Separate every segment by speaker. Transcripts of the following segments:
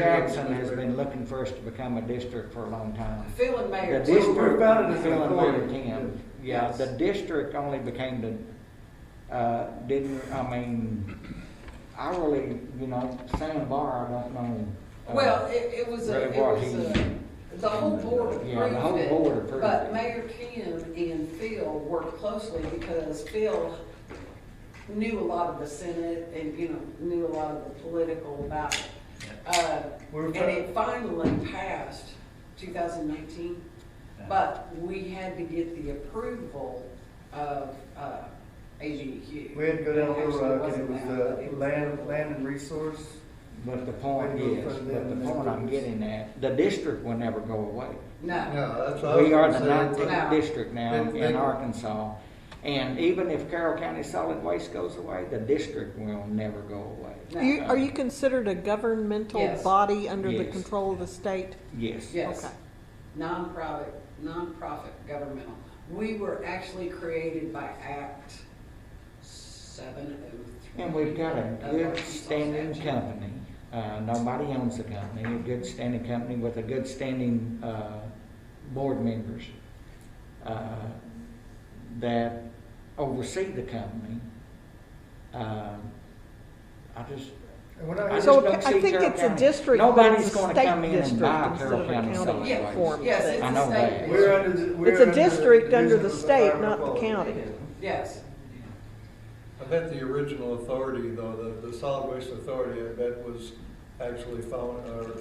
Speaker 1: Jackson has been looking for us to become a district for a long time.
Speaker 2: Phil and
Speaker 1: The
Speaker 2: Mayor. too.
Speaker 1: district.
Speaker 3: We're about it as an
Speaker 1: Phil and Mary
Speaker 3: employee.
Speaker 1: Kim. Yeah, the district only became the, uh, didn't, I mean, I really, you know, Sam Barr, I don't know. uh,
Speaker 2: Well, it, it was, a-
Speaker 1: Really
Speaker 2: it
Speaker 1: what
Speaker 2: was,
Speaker 1: he-
Speaker 2: a- the whole board approved it.
Speaker 1: Yeah, the whole board approved
Speaker 2: But
Speaker 1: it.
Speaker 2: Mayor Kim and Phil worked closely because Phil knew a lot of the Senate and, you know, knew a lot of the political about it. Uh,
Speaker 3: We're
Speaker 2: And
Speaker 3: pro-
Speaker 2: it finally passed 2019, but we had to get the approval of uh, AGQ.
Speaker 3: We had to go down Little
Speaker 2: Actually, it
Speaker 3: Rock and it
Speaker 2: wasn't
Speaker 3: was
Speaker 2: that, but it
Speaker 3: the
Speaker 2: was
Speaker 3: land,
Speaker 2: Little
Speaker 3: land
Speaker 2: Rock.
Speaker 3: and resource.
Speaker 1: But the point
Speaker 3: They look
Speaker 1: is,
Speaker 3: for
Speaker 1: but
Speaker 3: them,
Speaker 1: the
Speaker 3: they
Speaker 1: point I'm
Speaker 3: lose.
Speaker 1: getting at, the district will never go away.
Speaker 2: No,
Speaker 3: No, that's
Speaker 1: We are the
Speaker 2: Wow.
Speaker 1: nineteenth district now
Speaker 3: Then-
Speaker 1: in
Speaker 3: then-
Speaker 1: Arkansas. And even if Carroll County Solid Waste goes away, the district will never go away.
Speaker 2: No.
Speaker 4: You, are you considered a governmental
Speaker 2: Yes.
Speaker 4: body under the
Speaker 1: Yes.
Speaker 4: control of the state?
Speaker 1: Yes.
Speaker 2: yes,
Speaker 4: Okay.
Speaker 2: nonprofit, nonprofit governmental. We were actually created by Act 703.
Speaker 1: And we've got a
Speaker 2: of
Speaker 1: good
Speaker 2: Arkansas
Speaker 1: standing
Speaker 2: statute.
Speaker 1: company. Uh, nobody owns the company, a good standing company with a good standing, uh, board members, uh, that oversee the company. Uh, I just,
Speaker 3: And we're
Speaker 1: I
Speaker 3: not here
Speaker 1: just
Speaker 4: So
Speaker 1: don't
Speaker 4: I
Speaker 1: see
Speaker 4: think
Speaker 1: Carroll
Speaker 4: it's a
Speaker 1: County.
Speaker 4: district, but
Speaker 1: Nobody's
Speaker 4: it's a
Speaker 1: gonna come
Speaker 4: state
Speaker 1: in and
Speaker 4: district
Speaker 1: buy
Speaker 4: instead
Speaker 1: Carroll
Speaker 4: of a
Speaker 1: County solid
Speaker 4: county
Speaker 1: waste.
Speaker 4: form.
Speaker 2: Yes,
Speaker 4: thing.
Speaker 2: it's
Speaker 1: I
Speaker 2: a
Speaker 1: know
Speaker 2: state.
Speaker 1: that.
Speaker 2: issue.
Speaker 3: We're under the, we're
Speaker 4: It's a
Speaker 3: under the
Speaker 4: district under the
Speaker 3: Division of
Speaker 4: state,
Speaker 3: Environmental
Speaker 4: not the
Speaker 3: Quality.
Speaker 4: county.
Speaker 2: Yes,
Speaker 5: I bet the original authority, though, the, the solid waste authority, I bet was actually found, or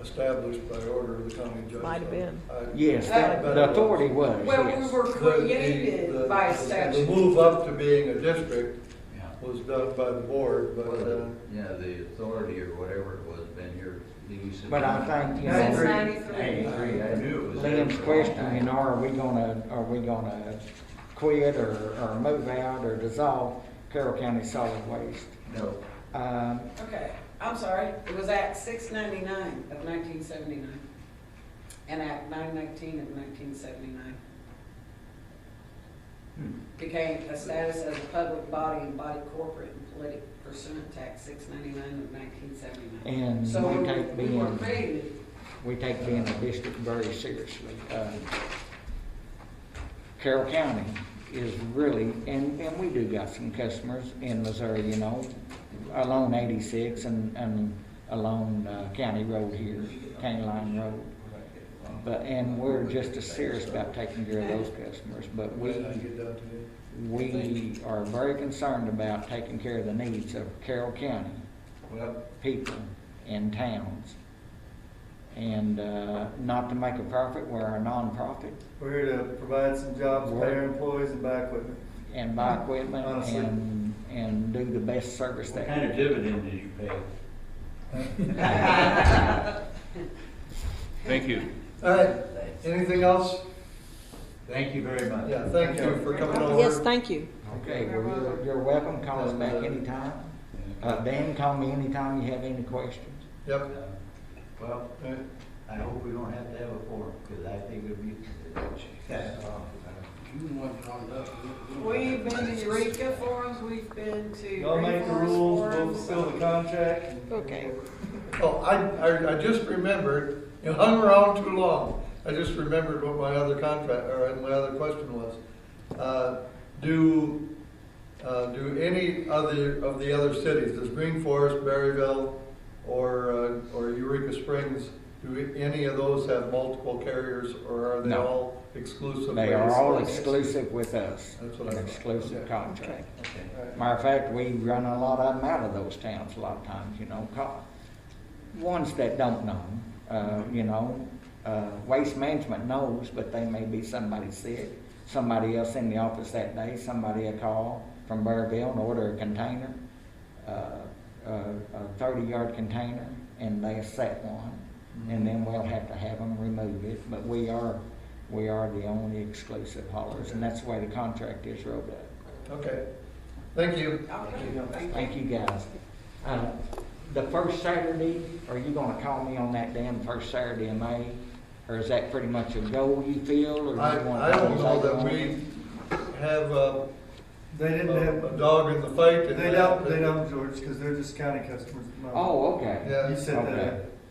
Speaker 5: established by order of the county judge.
Speaker 4: Might have been.
Speaker 5: I-
Speaker 1: Yes, that-
Speaker 5: I bet
Speaker 1: the
Speaker 5: it
Speaker 1: authority was,
Speaker 2: well, we
Speaker 1: yes.
Speaker 2: were
Speaker 5: was. The- the- the-
Speaker 2: created by statute.
Speaker 5: The move up to being a district
Speaker 6: Yeah,
Speaker 5: was done by the board, but,
Speaker 6: Well,
Speaker 5: uh,
Speaker 6: the- yeah, the authority or whatever it was, been here, you said.
Speaker 1: But I think, you
Speaker 2: Since
Speaker 1: know,
Speaker 3: That's-
Speaker 2: ninety-three.
Speaker 6: Ninety-three, I knew it was. there
Speaker 1: Liam's
Speaker 6: for a long
Speaker 1: question, you know, are we gonna, are we gonna quit or, or move out or dissolve Carroll County Solid Waste?
Speaker 6: time. No,
Speaker 1: Um,
Speaker 2: Okay, I'm sorry, it was Act six ninety-nine of nineteen seventy-nine, and Act nine nineteen of nineteen seventy-nine.
Speaker 1: Hmm.
Speaker 2: Became a status as a public body and body corporate and politic pursuant to Act six ninety-nine of nineteen seventy-nine.
Speaker 1: And
Speaker 2: So
Speaker 1: we take
Speaker 2: we were
Speaker 1: being-
Speaker 2: created,
Speaker 1: we take being a district very seriously. Uh, Carroll County is really, and, and we do got some customers in Missouri, you know, along eighty-six and, and along uh, County Road here, County Line Road. But, and we're just as serious about taking care of those customers, but
Speaker 5: when
Speaker 1: we,
Speaker 5: I get down to it.
Speaker 1: we are very concerned about taking care of the needs of Carroll County
Speaker 6: well,
Speaker 1: people in towns. And uh, not to make a profit, we're a nonprofit
Speaker 3: We're here to provide some jobs, pay our employees and buy equipment.
Speaker 1: and buy equipment
Speaker 3: Honestly.
Speaker 1: and, and do the best service
Speaker 7: What
Speaker 1: that.
Speaker 7: kind of dividend did you pay?
Speaker 8: Thank you.
Speaker 5: All right, anything else?
Speaker 7: Thank you very much.
Speaker 5: Yeah, thank you for coming over.
Speaker 4: Yes, thank you.
Speaker 1: Okay, well, you're, you're welcome, call us back anytime. Uh, Dan, call me anytime you have any questions.
Speaker 5: Yep.
Speaker 7: Uh, Well,
Speaker 5: all right.
Speaker 7: I hope we don't have to have a forum, because I think it'd be.
Speaker 5: Oh,
Speaker 6: you want to on up.
Speaker 2: we've been to Eureka forums, we've been to
Speaker 3: Y'all make the
Speaker 2: Reforest
Speaker 3: rules, we'll
Speaker 2: forums.
Speaker 3: fulfill the contract.
Speaker 4: Okay.
Speaker 5: Oh, I, I, I just remembered, you hung around too long. I just remembered what my other contract, or my other question was. Uh, Do, uh, do any other, of the other cities, does Green Forest, Berryville, or, uh, or Eureka Springs, do any of those have multiple carriers, or are they
Speaker 1: No.
Speaker 5: all exclusive?
Speaker 1: They are all
Speaker 5: ways?
Speaker 1: exclusive with us,
Speaker 5: That's what I
Speaker 1: an
Speaker 5: thought.
Speaker 1: exclusive
Speaker 5: Okay.
Speaker 1: contract.
Speaker 5: All right.
Speaker 1: Matter of fact, we run a lot of them out of those towns a lot of times, you know, co- ones that don't know, uh, you know, uh, waste management knows, but they may be somebody sick, somebody else in the office that day, somebody a call from Burrville and order a container, uh, a thirty-yard container, and they set one, and then we'll have to have them remove it, but we are, we are the only exclusive haulers, and that's the way the contract is rolled up.
Speaker 5: Okay, thank you.
Speaker 2: Okay, thank you.
Speaker 1: Thank you, guys. Uh, The first Saturday, are you gonna call me on that damn first Saturday in May? Or is that pretty much a goal you feel, or
Speaker 5: I,
Speaker 1: you want?
Speaker 5: I don't know that we have uh,
Speaker 3: They didn't
Speaker 5: a
Speaker 3: have,
Speaker 5: a dog in the fight. and
Speaker 3: they
Speaker 5: that-
Speaker 3: don't, they don't, George, because they're just county customers. at the moment.
Speaker 1: Oh, okay.
Speaker 5: Yeah.
Speaker 3: You set that
Speaker 1: Okay.
Speaker 3: up.